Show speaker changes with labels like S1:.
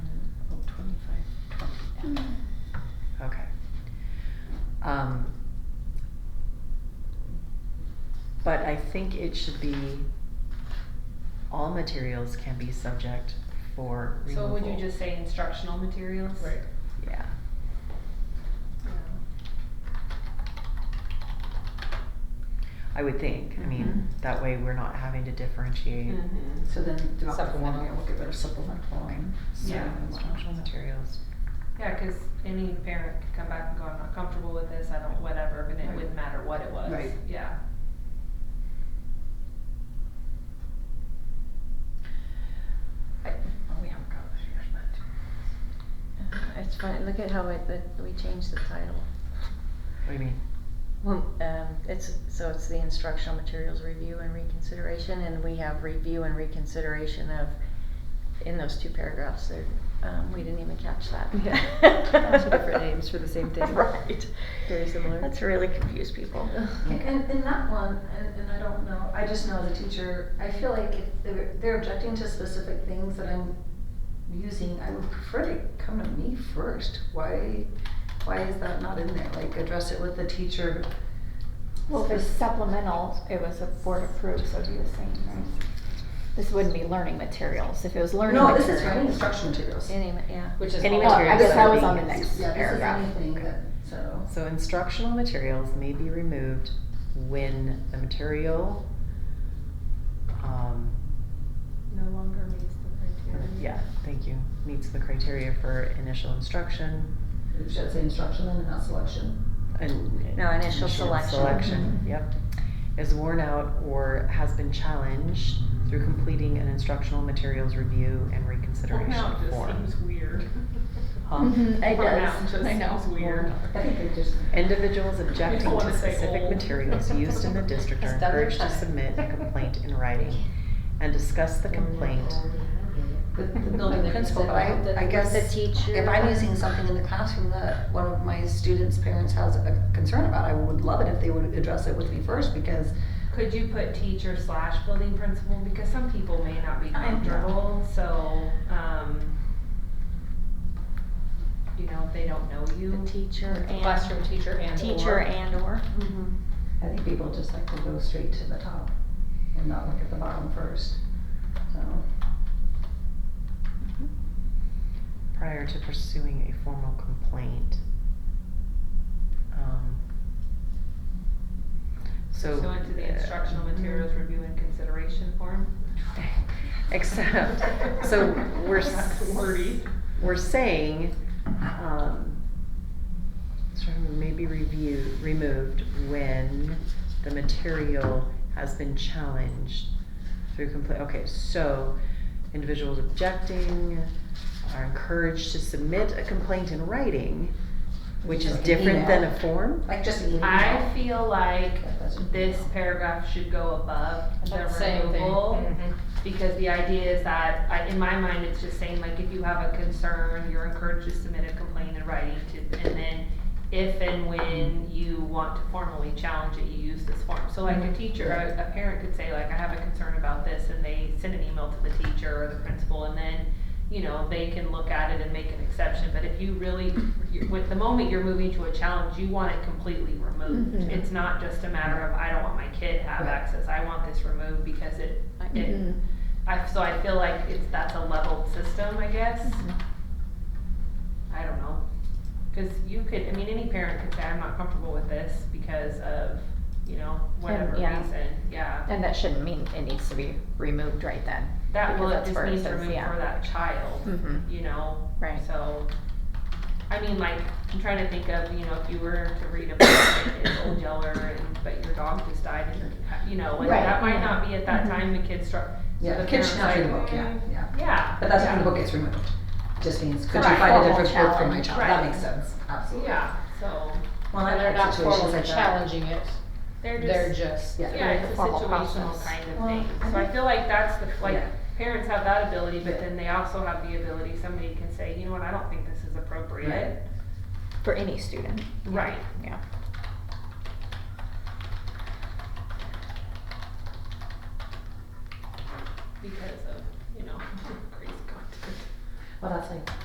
S1: Mm. Um, but I think it should be, all materials can be subject for
S2: So
S1: removal.
S2: would you just say instructional materials?
S3: Right.
S1: Yeah, I would think, I mean,
S4: Mhm.
S1: that way we're not having to differentiate
S2: Mm-hmm.
S4: So then develop one,
S2: Supplemental.
S4: we'll get rid of supplement following.
S2: Yeah.
S1: instructional materials.
S2: Yeah, cause any parent could come back and go, I'm not comfortable with this, I don't, whatever, but it
S4: Right.
S2: wouldn't matter what it was.
S4: Right.
S2: Yeah.
S4: I- Oh, we haven't got this year's
S5: Uh, It's fine, look at how it, that we changed the title.
S1: What do you mean?
S5: Well, um, it's, so it's the instructional materials review and reconsideration, and we have review and reconsideration of, in those two paragraphs there, um, we didn't even catch that.
S3: Yeah. Two different names for the same thing.
S5: Right.
S3: Very similar.
S5: That's really confused people.
S1: Okay.
S4: And, and that one, and, and I don't know, I just know the teacher, I feel like if they're, they're objecting to specific things that I'm using, I would prefer to come to me first. Why, why is that not in there? Like, address it with the teacher.
S6: Well, if it's supplemental, it was a board approved, so it'd be the same, right? This wouldn't be learning materials, if it was learning
S4: No,
S6: materials.
S4: this is for any instruction materials.
S5: Any, yeah.
S2: Which is
S1: Any
S6: Well, I
S1: materials
S6: guess
S1: that
S6: that
S1: are
S6: was on the
S1: being
S6: next
S4: Yeah, this is
S6: paragraph.
S4: anything that, so.
S1: So instructional materials may be removed when the material, um,
S2: No longer meets the criteria.
S1: yeah, thank you, meets the criteria for initial instruction.
S4: It should say instruction and not selection.
S1: and-
S5: No, initial selection.
S1: Selection,
S4: Mhm.
S1: yep. Is worn out or has been challenged through completing an instructional materials review and
S2: Well,
S1: reconsideration
S2: now it just
S1: form.
S2: seems weird.
S1: Huh?
S6: Mhm, it
S2: Well, Mm-hmm. now
S6: does.
S2: it
S6: I know.
S2: just seems weird.
S4: I think it just.
S1: Individuals objecting
S2: I
S1: to
S2: wanna say
S1: specific
S2: old.
S1: materials used in the district are
S2: Just other
S1: encouraged to
S2: time.
S1: submit a complaint in writing and discuss the complaint.
S4: The, the building principal, but I, I guess.
S5: The teacher.
S4: If I'm using something in the classroom that one of my students' parents has a concern about, I would love it if they would address it with me first because
S2: Could you put teacher slash building principal, because some people may not be
S4: I know.
S2: comfortable, so, um, you know, if they don't know you.
S5: The teacher and.
S2: Classroom teacher and
S5: Teacher
S2: or.
S5: and or.
S2: Mhm.
S1: Mm-hmm.
S4: I think people just like to go straight to the top and not look at the bottom first. So,
S1: prior to pursuing a formal complaint. Um, So.
S2: Pursuant to the
S1: uh,
S2: instructional materials review and consideration form.
S1: Except, so we're.
S2: That's
S1: s-
S2: wordy.
S1: We're saying, um, sort of maybe review, removed when the material has been challenged through complaint, okay, so individuals objecting are encouraged to submit a complaint in writing, which is
S4: Like an
S1: different than
S4: email.
S1: a form?
S4: like just an email.
S2: I feel like
S4: That doesn't-
S2: this paragraph should go above the
S3: Same thing. Mm-hmm.
S2: removal. Because the idea is that, I, in my mind, it's just saying like, if you have a concern, you're encouraged to submit a complaint in writing to, and then if and when you want to formally challenge it, you use this form. So like a teacher, a, a parent could say like, I have a concern about this, and they send an email to the teacher or the principal, and then, you know, they can look at it and make an exception, but if you really, you're- with the moment you're moving to a challenge, you want it completely removed.
S3: Mm-hmm.
S6: Mhm.
S2: It's not just a matter of, I don't want my kid to have
S4: Right.
S2: access, I want this removed because it
S5: I-
S2: it,
S3: Mm-hmm.
S6: Mhm.
S2: I, so I feel like it's, that's a leveled system, I guess.
S6: Mm-hmm.
S2: I don't know. Cause you could, I mean, any parent could say, I'm not comfortable with this because of, you know, whatever
S6: yeah.
S2: reason, yeah.
S6: And that shouldn't mean it needs to be removed right then.
S2: That
S6: because
S2: will, it
S6: that's
S2: just
S6: where it
S2: means
S6: says,
S2: removed
S6: yeah.
S2: for that child,
S6: Mm-hmm.
S2: you know,
S6: Right.
S2: so. I mean, like, I'm trying to think of, you know, if you were to read a book and it's old yeller and, but your dog just died and you're, you know, like,
S4: Right, Mm-hmm.
S2: that might
S6: yeah.
S2: not be at that time the kid struck.
S4: Yeah,
S2: the
S4: the kid should not read
S2: parent's
S4: the book,
S2: like, "Mm,
S4: yeah, yeah.
S2: Yeah.
S4: But that's
S2: yeah.
S4: when the book gets removed. Just means, could you
S2: Right.
S4: find a
S6: Formal
S4: different book for my
S6: challenge.
S4: child? That
S2: Right.
S4: makes sense, absolutely.
S2: Yeah, so
S4: Well, I've had situations like that.
S3: it,
S2: they're just,
S3: just.
S4: Yeah,
S2: yeah, it's a
S6: Formal
S2: situational
S6: process.
S2: kind of
S4: Well,
S2: thing.
S4: I
S2: So I
S4: think-
S2: feel like that's the, like,
S4: Yeah.
S2: parents have that ability, but
S4: Yeah.
S2: then they also have the ability, somebody can say, you know what, I don't think this is appropriate.
S6: For any student.
S2: Right.
S6: Yeah.
S2: Because of, you know, crazy content.
S4: well, that's like